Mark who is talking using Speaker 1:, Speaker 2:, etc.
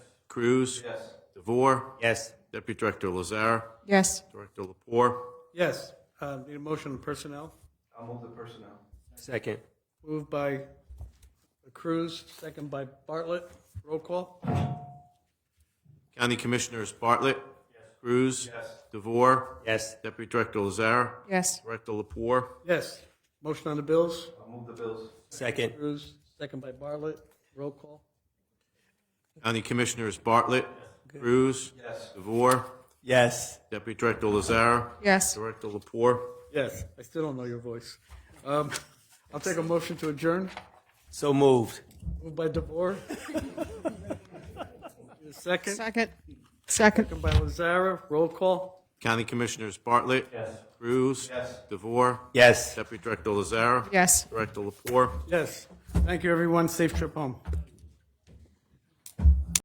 Speaker 1: Cruz. Yes. DeVore.
Speaker 2: Yes.
Speaker 1: Deputy Director Lazar.
Speaker 3: Yes.
Speaker 1: Director Lapore.
Speaker 4: Yes, uh, need a motion on personnel.
Speaker 5: I'll move the personnel.
Speaker 2: Second.
Speaker 4: Moved by Cruz, second by Bartlett. Roll call?
Speaker 1: County Commissioners Bartlett. Cruz.
Speaker 5: Yes.
Speaker 1: DeVore.
Speaker 2: Yes.
Speaker 1: Deputy Director Lazar.
Speaker 3: Yes.
Speaker 1: Director Lapore.
Speaker 4: Yes. Motion on the bills?
Speaker 5: I'll move the bills.
Speaker 2: Second.
Speaker 4: Cruz, second by Bartlett. Roll call?
Speaker 1: County Commissioners Bartlett. Cruz.
Speaker 5: Yes.
Speaker 1: DeVore.
Speaker 2: Yes.
Speaker 1: Deputy Director Lazar.
Speaker 3: Yes.
Speaker 1: Director Lapore.
Speaker 4: Yes, I still don't know your voice. Um, I'll take a motion to adjourn.
Speaker 2: So moved.
Speaker 4: Moved by DeVore. Second,
Speaker 3: Second. Second.
Speaker 4: second by Lazara. Roll call?
Speaker 1: County Commissioners Bartlett.
Speaker 5: Yes.
Speaker 1: Cruz.
Speaker 5: Yes.
Speaker 1: DeVore.
Speaker 2: Yes.
Speaker 1: Deputy Director Lazar.
Speaker 3: Yes.
Speaker 1: Director Lapore.
Speaker 4: Yes. Thank you, everyone. Safe trip home.